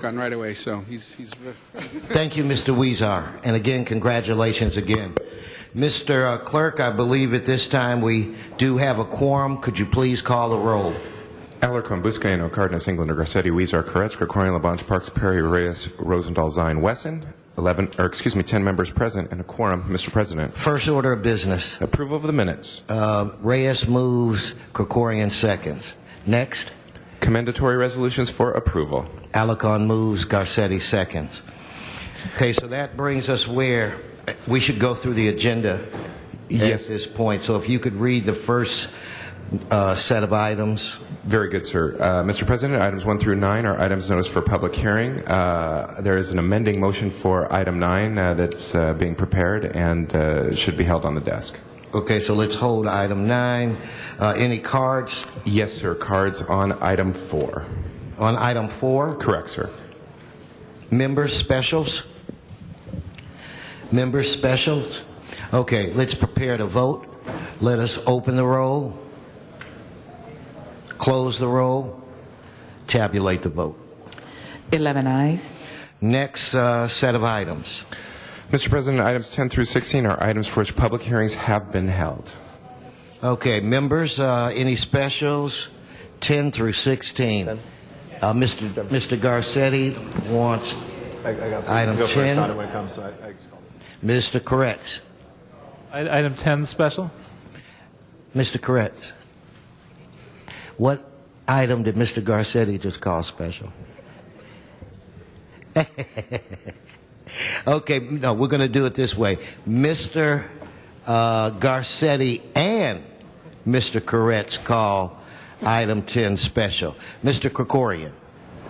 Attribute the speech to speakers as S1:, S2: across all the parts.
S1: gotten right away, so he's, he's
S2: Thank you, Mr. Weezer. And again, congratulations again. Mr. uh, Clerk, I believe at this time we do have a quorum. Could you please call the roll?
S3: Alarcon, Buscaino, Cardenas, Englander, Garcetti, Weezer, Koretz, Krikorian, Labange, Parks, Perry, Reyes, Rosendahl, Zine, Wesson. 11, or excuse me, 10 members present and a quorum, Mr. President.
S2: First order of business.
S3: Approval of the minutes.
S2: Uh, Reyes moves, Krikorian seconds. Next,
S3: Commendatory resolutions for approval.
S2: Alacon moves, Garcetti seconds. Okay, so that brings us where we should go through the agenda
S3: Yes.
S2: at this point. So if you could read the first uh, set of items.
S3: Very good, sir. Uh, Mr. President, items 1 through 9 are items noticed for public hearing. Uh, There is an amending motion for item 9 uh, that's uh, being prepared and uh, should be held on the desk.
S2: Okay, so let's hold item nine. Uh, any cards
S3: Yes, sir. Cards on item 4.
S2: on item four?
S3: Correct, sir.
S2: Members specials? Members specials? Okay, let's prepare to vote. Let us open the roll, close the roll, tabulate the vote.
S4: 11 eyes.
S2: Next uh, set of items.
S3: Mr. President, items 10 through 16 are items for which public hearings have been held.
S2: Okay, members, uh, any specials? 10 through 16. Uh, Mr. Mr. Garcetti wants
S5: I, I got
S2: Item
S5: go first
S2: 10.
S5: on it when it comes, so I, I just call it.
S2: Mr. Corretz.
S6: I- Item 10 special?
S2: Mr. Corretz, what item did Mr. Garcetti just call special? okay, no, we're going to do it this way. Mr. Uh, Garcetti and Mr. Corretz call item 10 special. Mr. Krikorian,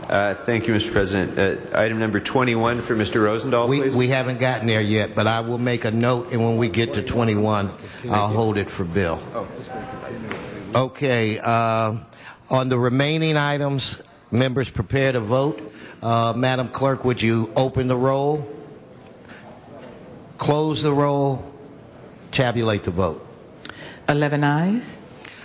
S7: Uh, Thank you, Mr. President. Uh, Item number 21 for Mr. Rosendahl,
S2: we,
S7: please.
S2: we haven't gotten there yet, but I will make a note, and when we get to 21, I'll hold it for Bill. Okay, uh, on the remaining items, members prepare to vote. Uh, Madam Clerk, would you open the roll, close the roll, tabulate the vote?
S4: 11 eyes.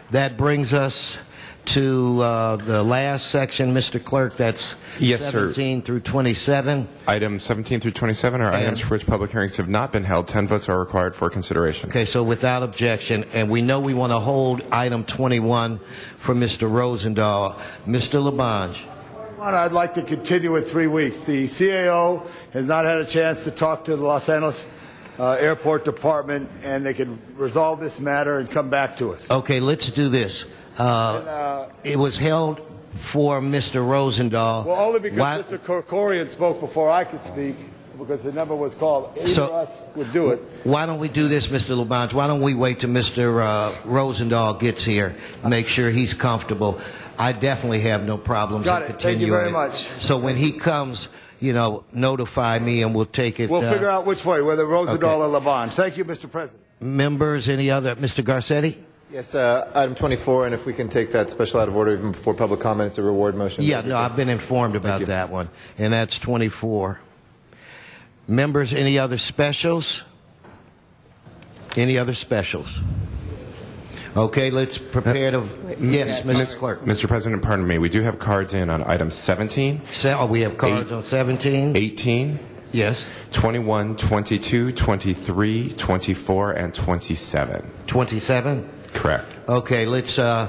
S2: That brings us to uh, the last section, Mr. Clerk, that's
S3: Yes, sir.
S2: 17 through 27.
S3: Items 17 through 27 are items for which public hearings have not been held. 10 votes are required for consideration.
S2: Okay, so without objection, and we know we want to hold item 21 for Mr. Rosendahl. Mr. Labange,
S5: One, I'd like to continue with three weeks. The CAO has not had a chance to talk to the Los Angeles uh, Airport Department, and they can resolve this matter and come back to us.
S2: okay, let's do this. Uh, It was held for Mr. Rosendahl.
S5: Well, only
S2: Why-
S5: because Mr. Corcoran spoke before I could speak, because the number was called. Either
S2: So-
S5: of us would do it.
S2: Why don't we do this, Mr. Labange? Why don't we wait till Mr. uh, Rosendahl gets here, make sure he's comfortable? I definitely have no problems
S5: Got
S2: in
S5: it. Thank
S2: continuing
S5: you very
S2: it.
S5: much.
S2: So when he comes, you know, notify me and we'll take it.
S5: We'll
S2: uh,
S5: figure out which way, whether Rosendahl or Labange. Thank you, Mr. President.
S2: Members, any other? Mr. Garcetti?
S8: Yes, uh, item 24, and if we can take that special out of order even before public comment, it's a reward motion.
S2: Yeah, no, I've been informed about that one, and that's 24. Members, any other specials? Any other specials? Okay, let's prepare to, yes, Mrs. Clerk.
S3: Mr. President, pardon me, we do have cards in on items 17,
S2: Se- oh, We have cards
S3: Eight.
S2: on 17?
S3: 18,
S2: Yes.
S3: 21, 22, 23, 24, and 27.
S2: 27?
S3: Correct.
S2: Okay, let's uh,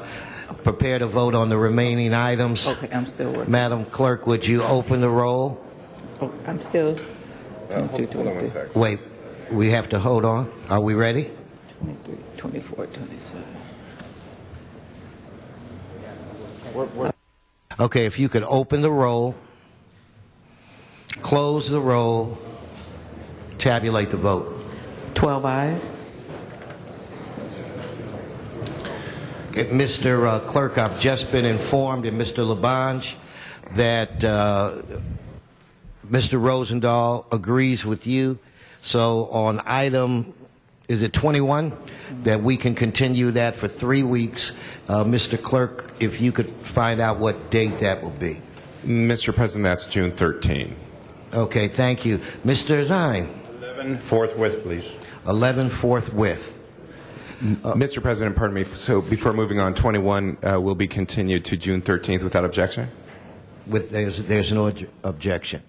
S2: prepare to vote on the remaining items.
S4: Okay, I'm still working.
S2: Madam Clerk, would you open the roll?
S4: Oh, I'm still. Uh, Hold
S2: Wait, we have to hold on. Are we ready?
S4: 23, 24, 27.
S2: Okay, if you could open the roll, close the roll, tabulate the vote.
S4: 12 eyes.
S2: Okay, Mr. uh, Clerk, I've just been informed, and Mr. Labange, that uh, Mr. Rosendahl agrees with you. So on item, is it 21? That we can continue that for three weeks. Uh, Mr. Clerk, if you could find out what date that will be.
S3: Mr. President, that's June 13.
S2: Okay, thank you. Mr. Zine,
S7: 11 forthwith, please.
S2: 11 forthwith.
S3: Mr. President, pardon me, so before moving on, 21 uh, will be continued to June 13th without objection?
S2: with, there's, there's no obj- objection.